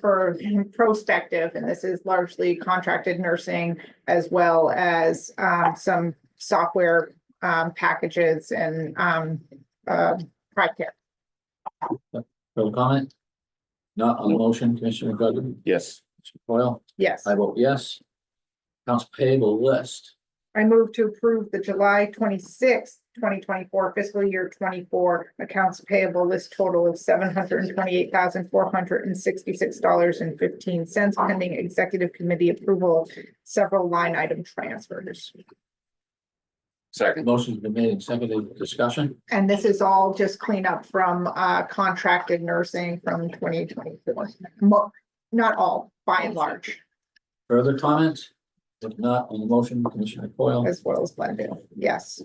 for prospective, and this is largely contracted nursing as well as um some software um packages and um uh private care. Further comment? Not on the motion, Commissioner Godu? Yes. Commissioner Foil? Yes, I vote yes. Accounts payable list. I move to approve the July twenty-sixth, twenty twenty-four fiscal year twenty-four accounts payable list total of seven hundred and twenty-eight thousand, four hundred and sixty-six dollars and fifteen cents pending executive committee approval of several line item transfers. Second. Motion's been made and seconded. Discussion? And this is all just cleanup from uh contracted nursing from twenty twenty-four. Not all, by and large, Further comments? If not, on the motion, Commissioner Coyle, as well as blended. Yes.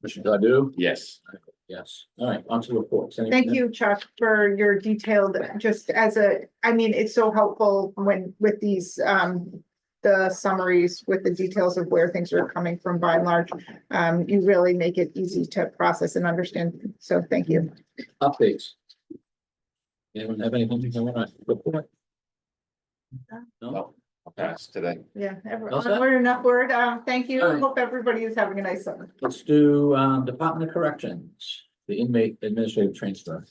Commissioner Godu? Yes. Yes. All right, on to reports. Any- Thank you, Chuck, for your detailed, just as a, I mean, it's so helpful when with these um. The summaries with the details of where things are coming from by and large. Um, you really make it easy to process and understand. So thank you. Updates. Anyone have anything to come on? Report? No? No. Pass today. Yeah, everyone, All set? we're enough word. Uh, thank you. All right. Hope everybody is having a nice summer. Let's do um Department of Corrections, the inmate administrative transfer.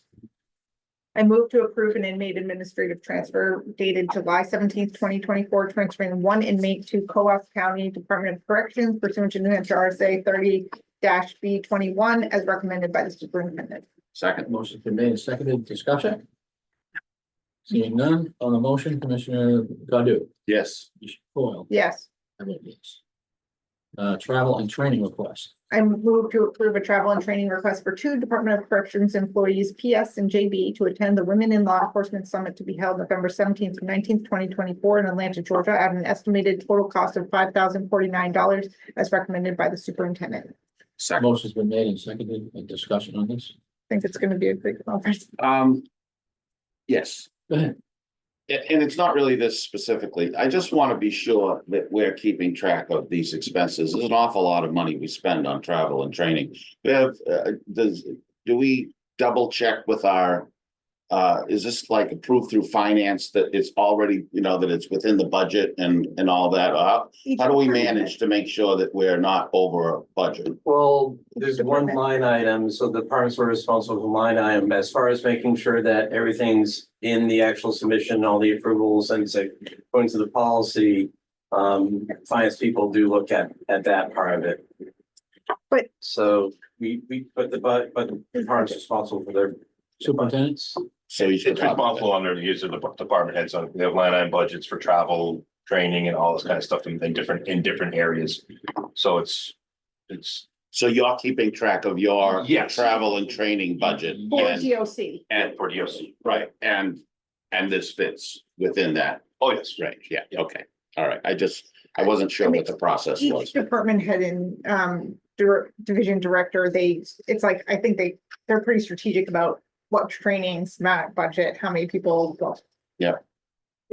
I move to approve an inmate administrative transfer dated July seventeenth, twenty twenty-four, transferring one inmate to Co-op County Department of Corrections pursuant to New Hampshire RSA thirty B twenty-one as recommended by the superintendent. Second. Motion's been made and seconded. Discussion? Seeing none, on the motion, Commissioner Godu? Yes. Commissioner Coyle? Yes, I vote yes. Uh, travel and training request. I move to approve a travel and training request for two Department of Corrections employees, PS and JB, to attend the Women in Law Enforcement Summit to be held November seventeenth through nineteenth, twenty twenty-four in Atlanta, Georgia, at an estimated total cost of five thousand forty-nine dollars as recommended by the superintendent. I Second. Motion's been made and seconded. A discussion on this? think it's gonna be a big conference. Um. Yes. Go ahead. A- And it's not really this specifically. I just want to be sure that we're keeping track of these expenses. There's an awful lot of money we spend on travel and training. Bev, uh, does, do we double check with our? Uh, is this like approved through finance that it's already, you know, that it's within the budget and, and all that? Uh, How do we manage to make sure that we're not over a budget? Well, there's one Department. line item, so the departments were responsible for line item as far as making sure that everything's in the actual submission, all the approvals and so going to the policy. Um, finance people do look at, at that part of it. But- So we, we, but the, but, but the department's responsible for their. Superintendent's? So you It's should it's responsible under the use of the department heads on, they have line item budgets for travel, training and all this kind of stuff in in different, in different areas. So it's, it's, So you're keeping track of your Yes. travel and training budget For and, DOC, and, for DOC. right, and, and this fits within that Oh, yes. range, yeah, okay. All right, I just, I wasn't sure what the process each was. department head and um dir- division director, they, it's like, I think they, they're pretty strategic about what trainings, not budget, how many people. go.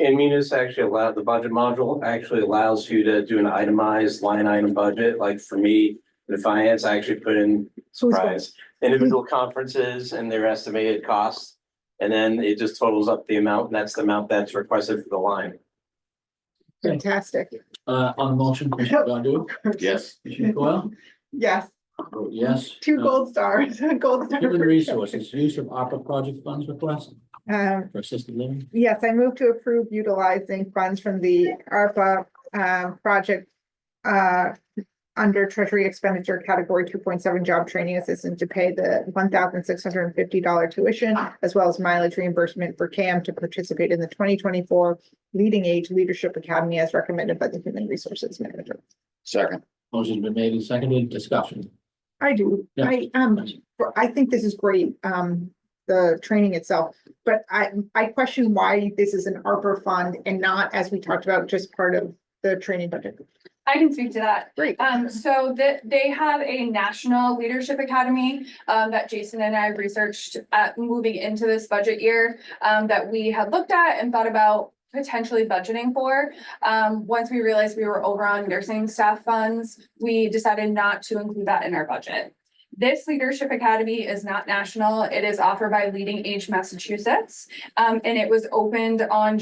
And Munis actually allowed, the budget module actually allows you to do an itemized line item budget, like for me, the finance, I actually put in So it's- Price, individual conferences and their estimated costs. And then it just totals up the amount, and that's the amount that's requested for the line. Fantastic. Uh, on the motion, Commissioner Godu? Yes, Commissioner Coyle? Yes, I vote Yes. two Uh, gold stars, gold. star Human for- Resources, use of ARPA project funds request Um, for assisted living. Yes, I move to approve utilizing funds from the ARPA uh, project uh, under Treasury expenditure category two point seven job training assistant to pay the one thousand six hundred and fifty dollar tuition as well as mileage reimbursement for CAM to participate in the twenty twenty-four Leading Age Leadership Academy as recommended by the Human Resources Manager. second, Motion's been made and seconded. Discussion. I do. Yeah. I, um, for- I think this is great, um, the training itself. But I, I question why this is an ARPA fund and not, as we talked about, just part of the training budget. I can speak to that. Great. Um, so that they have a national leadership academy um, that Jason and I researched at moving into this budget year um, that we had looked at and thought about potentially budgeting for. Um, once we realized we were over on nursing staff funds, we decided not to include that in our budget. This leadership academy is not national. It is offered by Leading Age Massachusetts. um, and it was opened on